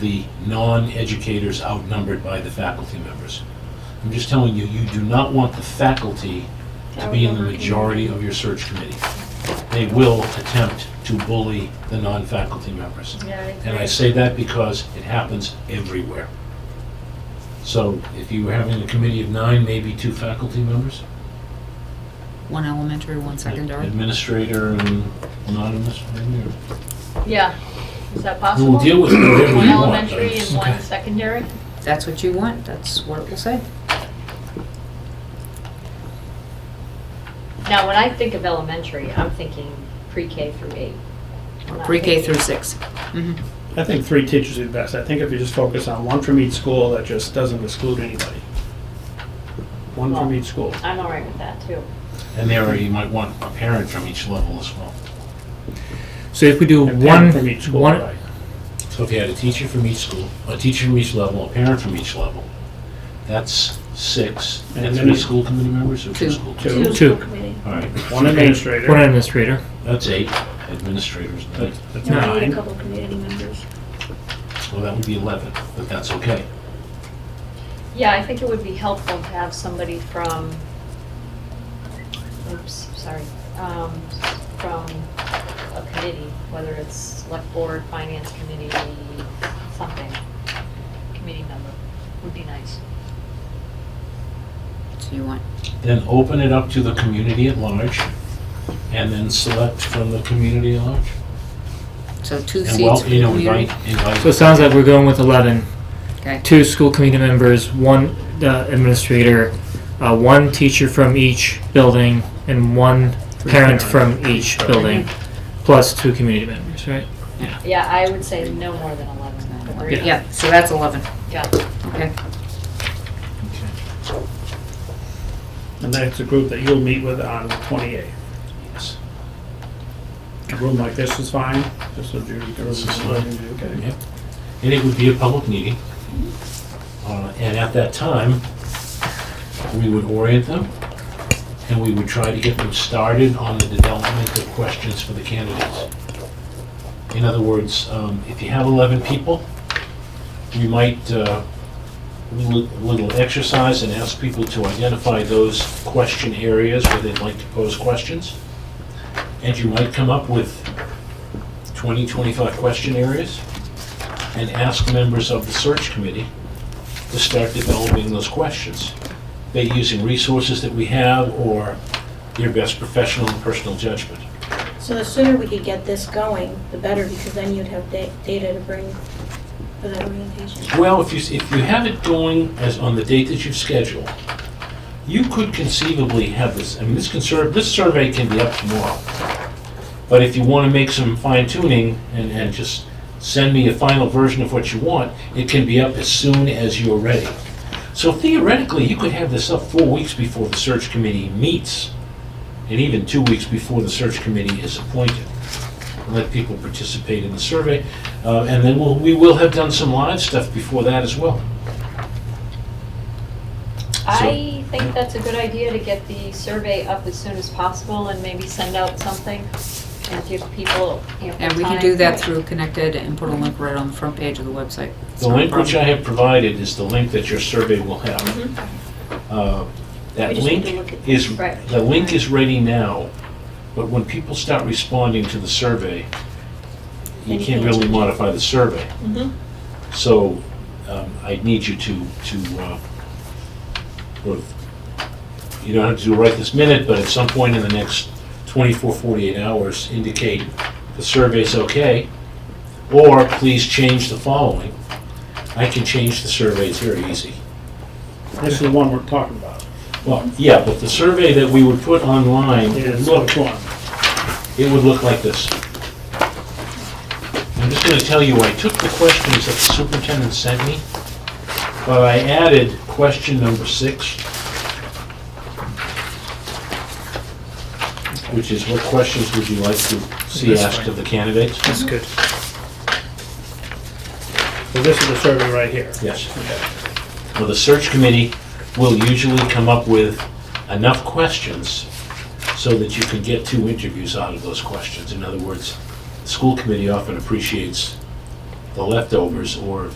the non-educators outnumbered by the faculty members. I'm just telling you, you do not want the faculty to be in the majority of your search committee. They will attempt to bully the non-faculty members. Yeah, I And I agree. say that because it happens everywhere. So if you were having a committee of nine, maybe two faculty members, One elementary, one secondary. administrator and anonymous, maybe, or- Yeah, is that we'll possible? deal with whatever you want. One but elementary it's- and one secondary? That's what you want, that's what it will say. Now, when I think of elementary, I'm thinking pre-K through eight. I'm not Pre-K thinking- through six. Mhm. I think three teachers would be best. I think if you just focus on one from each school, that just doesn't exclude anybody. One from each school. I'm all right with that, too. And there, you might want a parent from each level as well. So if we do A parent one, from each school, one, right. So if you had a teacher from each school, a teacher from each level, a parent from each level, that's six. And And three then- school committee members or two Two. school? Two. school Two. committee. All right, One administrator. one administrator, that's eight administrators. nine. That's- that's You only need nine. a couple community members. Well, that would be 11, but that's okay. Yeah, I think it would be helpful to have somebody from, oops, sorry, um, from a committee, whether it's select board, finance committee, something, committee member, would be nice. So you want, Then open it up to the community at large, and then select from the community at large. so two And seats well, for you know, community. invite- invite- so it sounds like we're going with eleven. Okay. Two school committee members, one uh, administrator, uh, one teacher from each building, and one parent parents. from each building, plus two community members, right? Yeah, I would say no more than 11. or- Yeah. Yeah, so that's 11, Yeah. okay. And that's a group that you'll meet with on the 28th. Yes. A room like this is fine, just so Judy can This is review. Okay. Yep. And it would be a public meeting. Uh, And at that time, we would orient them, and we would try to get them started on the development of questions for the candidates. In other words, um, if you have 11 people, we might, uh, a little- little exercise and ask people to identify those question areas where they'd like to pose questions. And you might come up with 20, 25 question areas and ask members of the search committee to start developing those questions. They're using resources that we have or their best professional and personal judgment. So the sooner we could get this going, the better, because then you'd have da- data to bring for that orientation. Well, if you, if you have it going as on the date that you've scheduled, you could conceivably have this, I mean, this can serve, this survey can be up tomorrow. But if you want to make some fine tuning and, and just send me a final version of what you want, it can be up as soon as you're ready. So theoretically, you could have this up four weeks before the search committee meets, and even two weeks before the search committee is appointed. Let people participate in the survey, uh, and then we'll, we will have done some live stuff before that as well. I think that's a good idea to get the survey up as soon as possible and maybe send out something and give people ample time. And we can do that through Connected and put a link right on the front page of the website. It's The not a link which I problem. have provided is the link that your survey will have. Uh, That We just need link to look at- is, Right. the link is ready now, but when people start responding to the survey, you Then you can't can't really change it. Mm-hmm. modify the survey. Mhm. So um, I need you to, to, uh, sort of- you don't have to do it right this minute, but at some point in the next 24, 48 hours, indicate the survey's okay, or please change the following. I can change the survey, it's very easy. This is the one we're talking about. Well, yeah, but the survey that we would put online would Is look, which one? it would look like this. I'm just gonna tell you, I took the questions that the superintendent sent me, but I added question number six, which is what questions would you like to see This asked one. of the candidates? That's good. So this is the survey right here. Yes. Well, the search committee will usually come up with enough questions so that you can get two interviews out of those questions. In other words, the school committee often appreciates the leftovers or